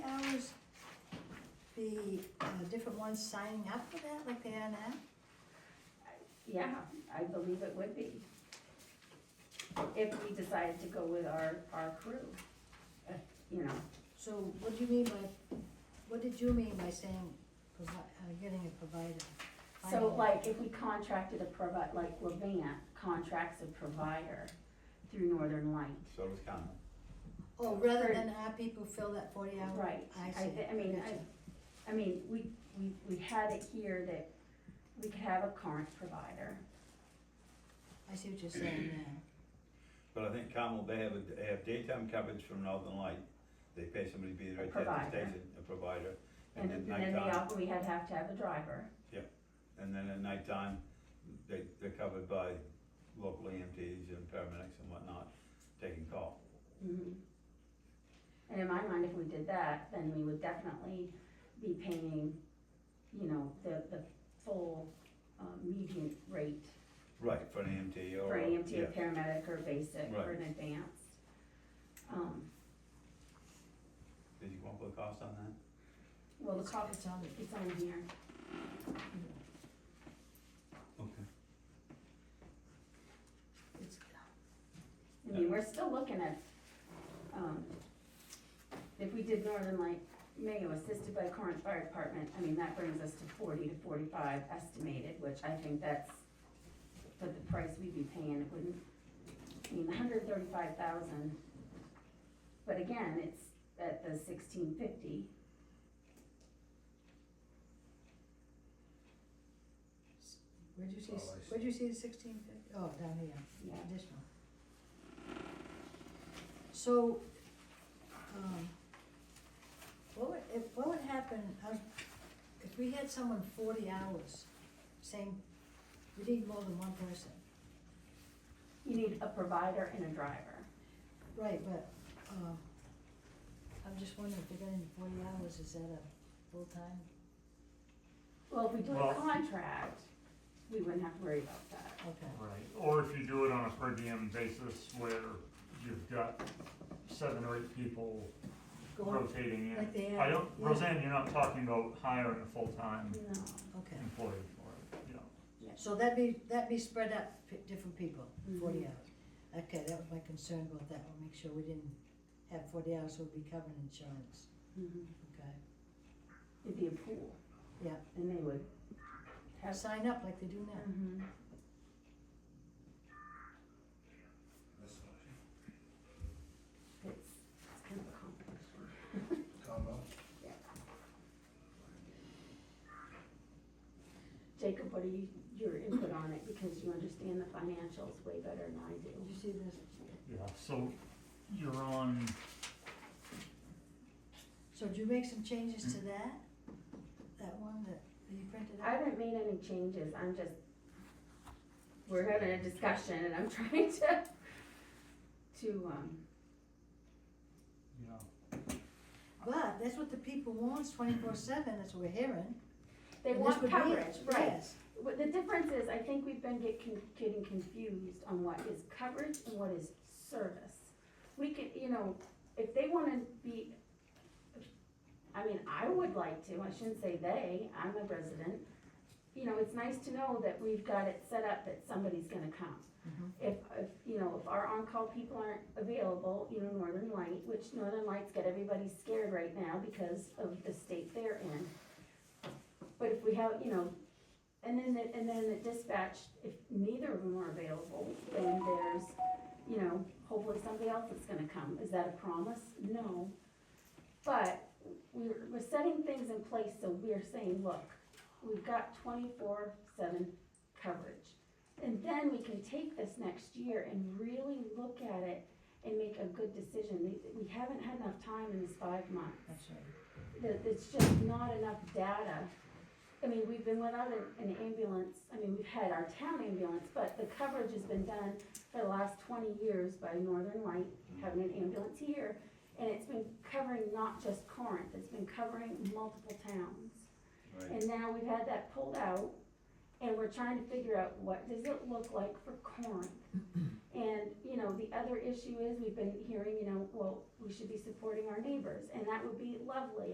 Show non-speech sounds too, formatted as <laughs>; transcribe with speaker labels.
Speaker 1: the uh, different ones signing up for that like they are now?
Speaker 2: Yeah, I believe it would be. If we decided to go with our, our crew, Uh, you know,
Speaker 1: So what do you mean by, what did you mean by saying provi- uh, getting a provider?
Speaker 2: so
Speaker 1: Finding-
Speaker 2: like if we contracted a provi, like Levant contracts a provider through Northern Light.
Speaker 3: So is Conlon.
Speaker 1: Oh, rather
Speaker 2: for-
Speaker 1: than our people fill that forty hour?
Speaker 2: Right,
Speaker 1: Oh, I
Speaker 2: I,
Speaker 1: see.
Speaker 2: thi- I mean,
Speaker 1: Gotcha.
Speaker 2: I, I mean, we, we, we had it here that we could have a current provider.
Speaker 1: I see what you're saying now.
Speaker 3: But I think Carmel, they have, a- they have daytime coverage from Northern Light. They pay somebody to be there at
Speaker 2: Provider.
Speaker 3: that station, a provider.
Speaker 2: And
Speaker 3: at
Speaker 2: then they,
Speaker 3: nighttime,
Speaker 2: al- we had have to have a driver,
Speaker 3: and then at nighttime, they, they're covered by local EMTs and paramedics and whatnot, taking call.
Speaker 2: Mhm. And in my mind, if we did that, then we would definitely be paying, you know, the, the full, um, median rate
Speaker 3: Right, for an EMT or.
Speaker 2: for E EMT,
Speaker 3: Oh, yeah.
Speaker 2: a paramedic, or basic, or
Speaker 3: Right.
Speaker 2: an advanced. Um,
Speaker 3: Did you want to put a cost on that?
Speaker 2: well, the
Speaker 1: It's-
Speaker 2: cost,
Speaker 1: It's on the,
Speaker 2: it's on here,
Speaker 3: Okay.
Speaker 1: it's,
Speaker 2: I mean, we're still looking at, um, if we did Northern Light Mayo assisted by Corinth Fire Department, I mean, that brings us to forty to forty-five estimated, which I think that's, for the price we'd be paying, it wouldn't, I mean, hundred thirty-five thousand. But again, it's at the sixteen fifty,
Speaker 1: where'd you see,
Speaker 4: Oh, I see.
Speaker 1: where'd you see the sixteen fifty? Oh, down here.
Speaker 2: yeah,
Speaker 1: additional. So, um, what would, if, what would happen, uh, if we had someone forty hours saying, we need more than one person?
Speaker 2: you need a provider and a driver.
Speaker 1: Right, but, um, I'm just wondering if they're getting forty hours, is that a full-time?
Speaker 2: Well, if we do a
Speaker 5: Well-
Speaker 2: contract, we wouldn't have to worry about that,
Speaker 1: Okay,
Speaker 5: Right, or if you do it on a per diem basis where you've got seven or eight people
Speaker 1: going,
Speaker 5: rotating
Speaker 1: like
Speaker 5: in.
Speaker 1: they
Speaker 5: I
Speaker 1: have,
Speaker 5: don't, Roseanne, you're not talking about hiring a full-time
Speaker 2: you know.
Speaker 1: okay,
Speaker 5: employee for it, you know.
Speaker 1: so that'd be, that'd be spread out, p- different people, forty
Speaker 2: Mhm.
Speaker 1: hours. Okay, that was my concern about that, we'll make sure we didn't have forty hours, we'll be covering insurance,
Speaker 2: Mhm.
Speaker 1: okay?
Speaker 2: It'd be a pool.
Speaker 1: Yeah.
Speaker 2: And they would have.
Speaker 1: sign up like they do now.
Speaker 2: Mhm.
Speaker 4: This motion,
Speaker 2: It's, it's kind of a complication.
Speaker 4: <laughs> combo?
Speaker 2: Jacob, what are you, your input on it, because you understand the financials way better than I do.
Speaker 1: You see this,
Speaker 5: Yeah, so you're on,
Speaker 1: so did you make some changes to that? That one that you printed
Speaker 2: Mm-hmm. I
Speaker 1: out?
Speaker 2: haven't made any changes, I'm just, we're having a discussion and I'm <laughs> trying to, to, um,
Speaker 5: you know,
Speaker 1: But that's what the people wants twenty-four seven, that's what we're hearing.
Speaker 2: they
Speaker 1: And this
Speaker 2: want
Speaker 1: would be it,
Speaker 2: coverage, right?
Speaker 1: yes.
Speaker 2: What the difference is, I think we've been get con- getting confused on what is coverage and what is service. We could, you know, if they wanna be, I mean, I would like to, I shouldn't say they, I'm a resident. You know, it's nice to know that we've got it set up that somebody's gonna come.
Speaker 1: Mhm.
Speaker 2: If, if, you know, if our on-call people aren't available, you know, Northern Light, which Northern Light's got everybody scared right now because of the state they're in. But if we have, you know, and then, the- and then the dispatch, if neither of them are available, then there's, you know, hopefully somebody else is gonna come. Is that a promise? No. But we're, we're setting things in place, so we're saying, look, we've got twenty-four seven coverage. And then we can take this next year and really look at it and make a good decision. We- We haven't had enough time in this five months
Speaker 1: That's right.
Speaker 2: that it's just not enough data. I mean, we've been without an- an ambulance, I mean, we've had our town ambulance, but the coverage has been done for the last twenty years by Northern Light, having an ambulance here. And it's been covering not just Corinth, it's been covering multiple towns.
Speaker 3: Right.
Speaker 2: And now we've had that pulled out, and we're trying to figure out what does it look like for Corinth? And, you know, the other issue is, we've been hearing, you know, well, we should be supporting our neighbors, and that would be lovely,